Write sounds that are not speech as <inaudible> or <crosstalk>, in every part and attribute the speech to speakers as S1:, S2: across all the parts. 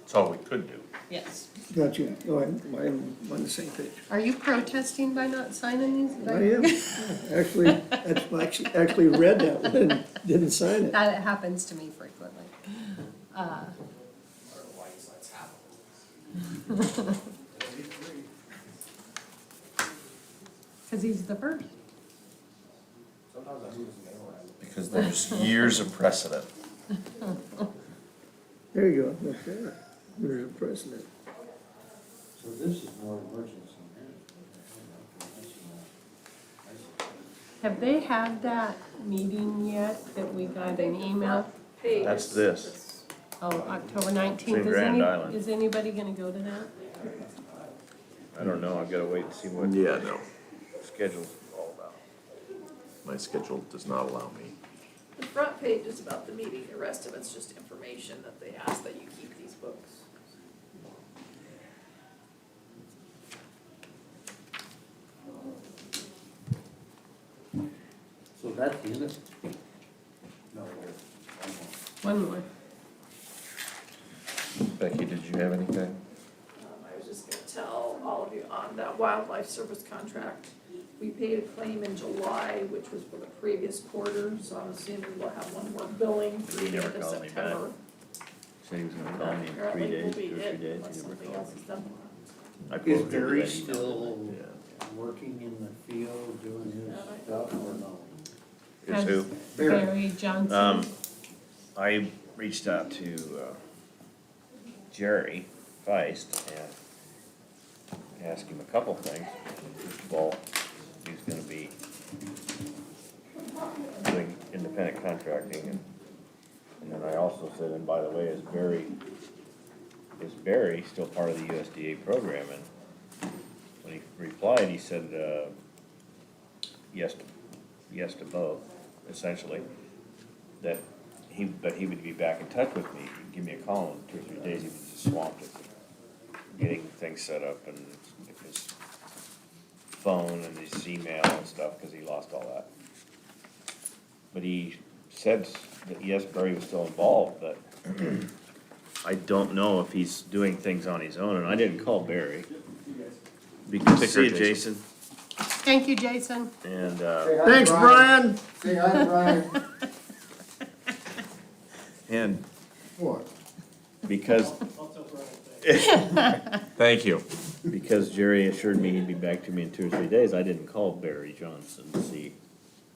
S1: That's all we could do.
S2: Yes.
S3: Got you, oh, I'm, I'm on the same page.
S4: Are you protesting by not signing these?
S3: I am, actually, I actually, actually read that one, and didn't sign it.
S4: That happens to me frequently. Uh, <laughs> Because he's the first.
S1: Because there's years of precedent.
S3: There you go, okay, there's a precedent.
S5: So this is more emergency management.
S4: Have they had that meeting yet that we got an email?
S1: That's this.
S4: Oh, October nineteenth,
S1: in
S4: is
S1: Grand
S4: any,
S1: Island.
S4: is anybody gonna go to that?
S1: I don't know, I've gotta wait and see what
S6: Yeah, no,
S1: schedule's all about.
S6: my schedule does not allow me.
S7: The front page is about the meeting, the rest of it's just information that they ask that you keep these books.
S5: So that's the end of it? No, wait, one more.
S4: One more.
S1: Becky, did you have anything?
S7: Um, I was just gonna tell all of you on that wildlife service contract, we paid a claim in July, which was for the previous quarter, so I'm assuming we'll have one more billing for
S1: He
S7: the end
S1: never
S7: of
S1: called me back.
S7: September.
S1: Said he was gonna
S7: Apparently we'll be it unless something else is done.
S1: I
S5: Is
S1: quoted her
S5: Barry
S1: that email.
S5: still
S1: Yeah.
S5: working in the field, doing his
S7: Yeah, I
S5: stuff or no?
S1: Is who?
S4: Barry Johnson.
S1: Um, I reached out to, uh, Jerry Feist and asked him a couple things. First of all, he's gonna be doing independent contracting and, and then I also said, and by the way, is Barry, is Barry still part of the USDA program? And when he replied, he said, uh, yes, yes to both, essentially that he, but he would be back in touch with me, he'd give me a call in two or three days, he was just swamped at getting things set up and his phone and his email and stuff, cause he lost all that. But he said that yes, Barry was still involved, but <clears throat> I don't know if he's doing things on his own, and I didn't call Barry. Because,
S6: Take
S1: see
S6: care,
S1: you, Jason,
S4: Thank you, Jason.
S1: and, uh.
S5: Say hi,
S3: Thanks, Brian!
S5: Say hi, Brian.
S1: And
S5: What?
S1: because,
S6: Thank you.
S1: because Jerry assured me he'd be back to me in two or three days, I didn't call Barry Johnson to see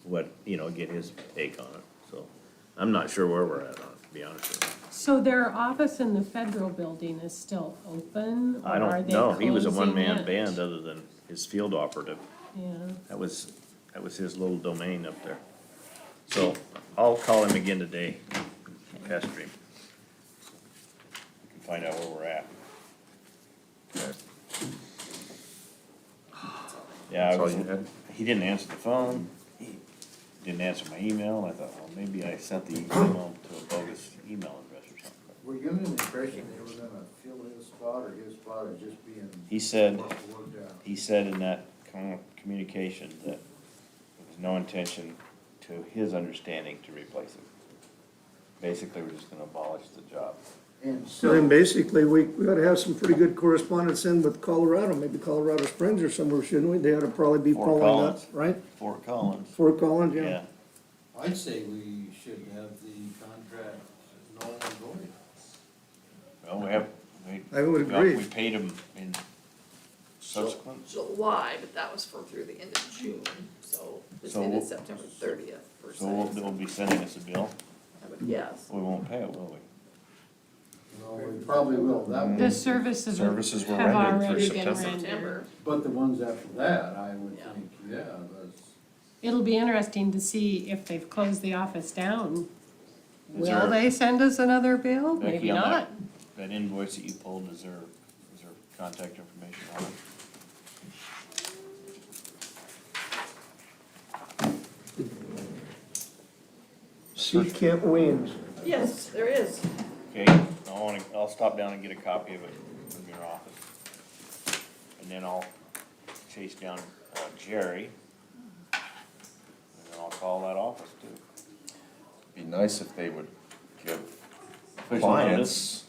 S1: what, you know, get his take on it, so. I'm not sure where we're at on it, to be honest with you.
S4: So their office in the federal building is still open? or
S1: I
S4: are
S1: don't
S4: they
S1: know, he was a
S4: closing
S1: one-man
S4: it?
S1: band other than his field operative.
S4: Yeah.
S1: That was, that was his little domain up there. So I'll call him again today, pester him. And Find out where we're at. Yeah, I
S6: That's all
S1: was,
S6: you had?
S1: he didn't answer the phone, he didn't answer my email, I thought, well, maybe I sent the email to a bogus email address or something.
S5: Were you under the impression they were gonna fill his spot or his spot is just being
S1: He said,
S5: worked out?
S1: he said in that com- communication that there was no intention, to his understanding, to replace it. Basically, we're just gonna abolish the job.
S5: And
S3: So then
S5: so,
S3: basically, we, we ought to have some pretty good correspondence in with Colorado, maybe Colorado Springs or somewhere, shouldn't we? They ought to probably be
S1: Fort
S3: following up,
S1: Collins.
S3: right?
S1: Fort Collins,
S3: Fort Collins, yeah.
S1: yeah,
S5: I'd say we should have the contract null and void.
S1: well, we have, we.
S3: I would
S1: well,
S3: agree.
S1: We paid him in subsequent,
S7: July, but that was for through the end of June, so this
S1: So
S7: ended
S1: we'll-
S7: September thirtieth per se.
S1: so we'll, they'll be sending us a bill,
S7: I would guess.
S1: we won't pay it, will we?
S5: Well, we probably will, that
S1: Mm.
S4: The
S5: one,
S4: services have
S1: Services were rendered through
S4: already been
S1: September.
S4: rendered.
S5: but the ones after that, I would
S7: Yeah.
S5: think, yeah, that's.
S4: It'll be interesting to see if they've closed the office down.
S1: Is
S4: Will
S1: there-
S4: they send us another bill? Maybe
S1: Becky, on
S4: not.
S1: that, that invoice that you pulled, is there, is there contact information on it?
S3: See Camp Williams.
S7: Yes, there is.
S1: Okay, I wanna, I'll stop down and get a copy of it from your office. And then I'll chase down uh, Jerry. And then I'll call that office too.
S6: Be nice if they would give
S1: Official notice.
S6: clients